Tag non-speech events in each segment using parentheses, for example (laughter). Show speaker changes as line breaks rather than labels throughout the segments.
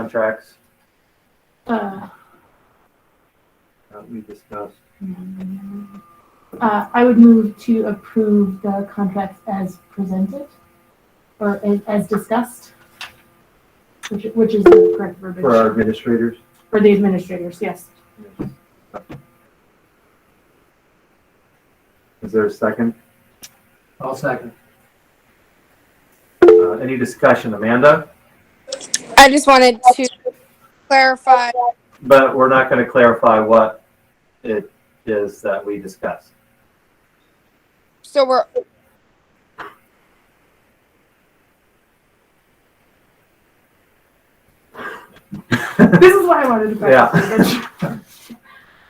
contracts
Uh,
that we discussed.
uh, I would move to approve the contracts as presented or as, as discussed, which, which is the correct verbiage
For our administrators,
For the administrators, yes.
is there a second?
I'll second.
Uh, any discussion, Amanda?
I just wanted to clarify,
But we're not going to clarify what it is that we discussed. (laughs)
so we're,
This is why I wanted to. practice
(laughs)
it.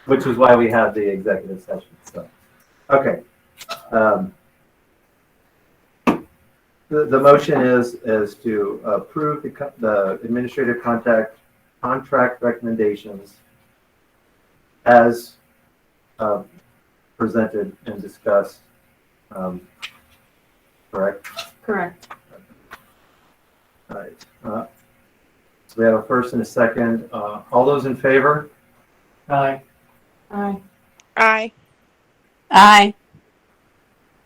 Which is why we have the executive session, so, okay. Um, The, the motion is, is to approve the, co- the administrative contact, contract recommendations as um, presented and discussed, um, correct?
Correct.
All right. Uh, So we have a first and a second, Uh, all those in favor?
Aye.
Aye.
aye,
Aye.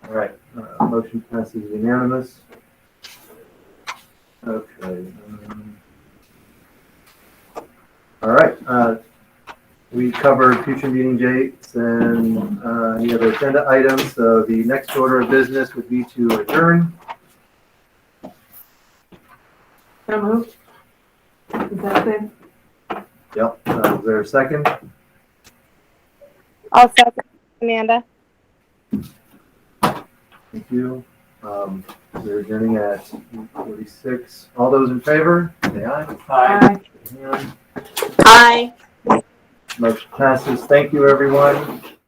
All right, uh, motion passes unanimous. Okay. um, All right, uh, we covered future meeting dates and uh, any other agenda items, so the next order of business would be to adjourn.
So moved. Is that good?
Yep, uh, is there a second?
I'll second Amanda.
Thank you. Um, We're adjourning at 46. All those in favor, say aye.
Aye.
Aye.
Aye.
Aye.
Motion passes. Thank you, everyone.